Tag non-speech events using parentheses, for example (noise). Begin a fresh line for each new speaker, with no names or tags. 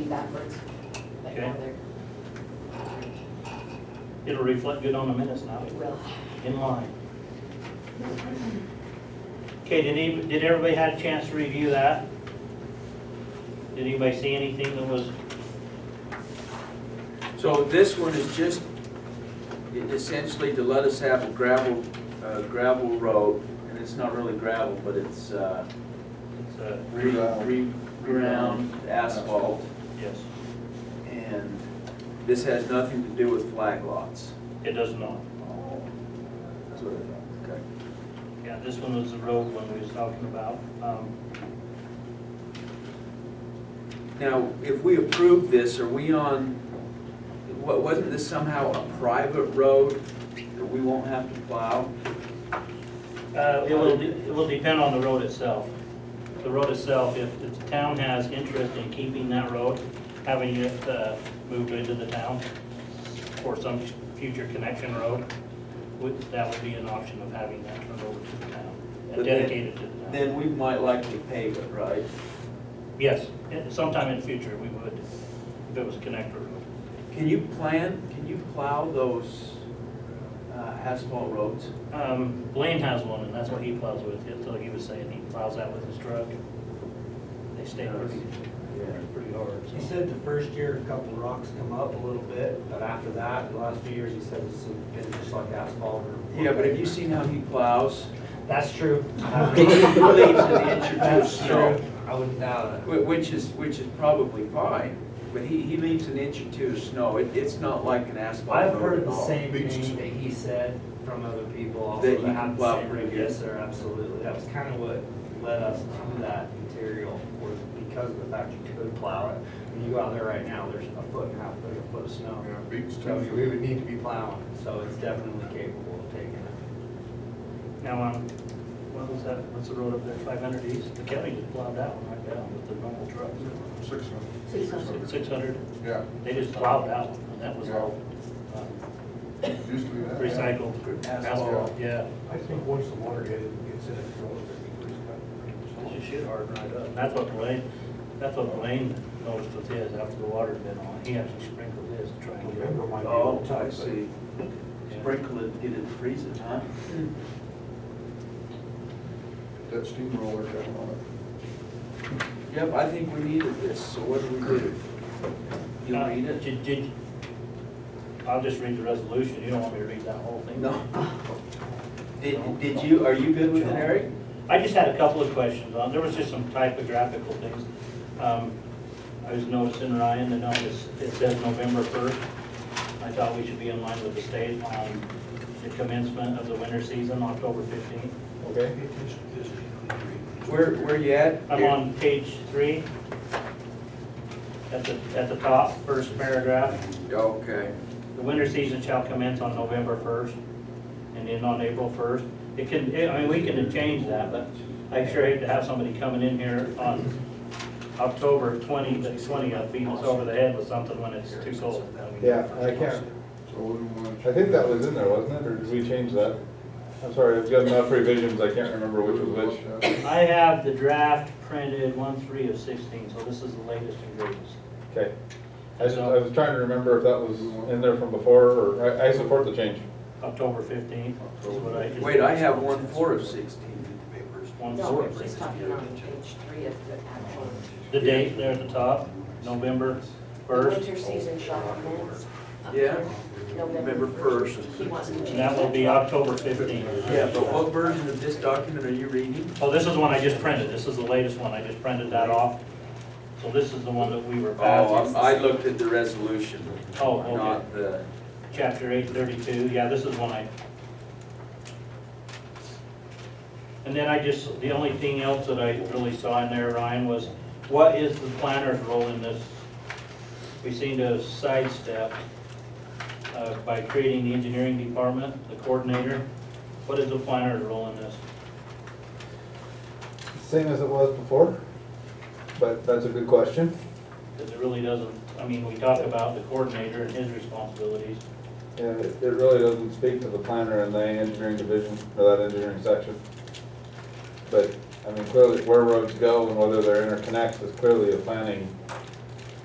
backwards. Like,
Okay.
oh, there-
It'll reflect good on the minutes now,
it will.
in line. Okay, did any, did everybody have a chance to review that? Did anybody see anything that was,
So this one is just e- essentially to let us have a gravel, uh, gravel road, and it's not really gravel, but it's, uh,
it's a,
re, re, ground asphalt,
yes,
and this has nothing to do with flag lots.
it does not.
That's what I thought, okay.
Yeah, this one was the road one we was talking about. Um,
Now, if we approve this, are we on, wa- wasn't this somehow a private road that we won't have to plow?
Uh, It will, de- it will depend on the road itself. The road itself, if if the town has interest in keeping that road, having it uh, moved into the town for some future connection road, would- that would be an option of having that turned over to the town and
But then-
dedicated to the town.
Then we might likely pave it, right?
Yes, and sometime in the future, we would, if it was a connector road.
Can you plan, can you plow those uh, asphalt roads?
Um, Blaine has one, and that's what he plows with. It's like he was saying, he plows that with his truck. They stay pretty, pretty hard, so.
He said the first year, a couple rocks come up a little bit, but after that, the last few years, he said it's been just like asphalt or.
Yeah, but have you seen how he plows?
That's
(laughs)
true.
He leaves an inch or two of
That's
snow,
true. I wouldn't doubt it.
whi- which is, which is probably fine, but he, he leaves an inch or two of snow. It, it's not like an asphalt
I've
road
heard
at
the
all.
same thing that he said from other people also.
That you
had
can
the
plow
same-
pretty good.
Yes, sir, absolutely. That was kind of what led us to that material, was because of the fact you could plow it. When you go out there right now, there's a foot and a half, there's a foot of snow.
Yeah, beats
So
two.
we would need to be plowing, so it's definitely capable of taking it.
Now, um, what was that, what's the road up there, five hundred east? The county just plowed that one right down with the normal trucks.
Six hundred.
Six hundred.
Six hundred,
Yeah,
they just plowed that one, and that was all um,
used to be that.
recycled asphalt,
Asphalt.
yeah.
I think once the water gets gets in, it's all gonna
It should harden right up. And That's what Blaine, that's what Blaine noticed with his, after the water had been on, he actually sprinkled his to try and
be.
get it.
Remember my
Oh,
old
I
time,
see.
Yeah.
Sprinkle it, get it freezing, huh?
That steamroller got on it.
Yep, I think we needed this, so what do we do? You
Uh,
read it?
did- did- I'll just read the resolution, you don't want me to read that whole thing?
(laughs) No. Did, did you, are you good with it, Eric?
I just had a couple of questions on, there was just some typographical things. Um, I was noticing, Ryan, the notice, it says November 1st. I thought we should be in line with the state on the commencement of the winter season, October 15th.
Okay.
Where, where you at?
I'm on page three, at the, at the top, first paragraph.
Okay.
The winter season shall commence on November 1st and end on April 1st. It can, I mean, we can change that, but I sure hate to have somebody coming in here on October 20, the 20th, beating us over the head with something when it's too cold.
Yeah, I can't,
So we don't want
I think that was in there, wasn't it, or did we change that? I'm sorry, I've got enough revisions, I can't remember which was which.
to.
I have the draft printed 1/3 of 16, so this is the latest and greatest.
Okay. I just, I was trying to remember if that was in there from before, or, I, I support the change.
October 15th is what I just.
Wait, I have one four of sixteen.
No, we're
1/4 of
just
16.
talking on page three of the actual.
The date there at the top, November 1st.
Winter season shall commence.
Yeah.
November
November
first.
first.
He wants to change
And that will be October 15th.
Yeah, but what version of this document are you reading?
Oh, this is one I just printed, this is the latest one, I just printed that off. So this is the one that we were
Oh, I'm-
passing.
I looked at the resolution,
Uh, Oh, okay,
not the,
chapter eight thirty-two, yeah, this is one I. And then I just, the only thing else that I really saw in there, Ryan, was what is the planner's role in this? We seem to have sidestepped uh, by creating the engineering department, the coordinator. What is the planner's role in this?
Same as it was before, but that's a good question.
Because it really doesn't, I mean, we talk about the coordinator and his responsibilities.
Yeah, it, it really doesn't speak to the planner and the engineering division, or that engineering section. But, I mean, clearly, where roads go and whether they're interconnected is clearly a planning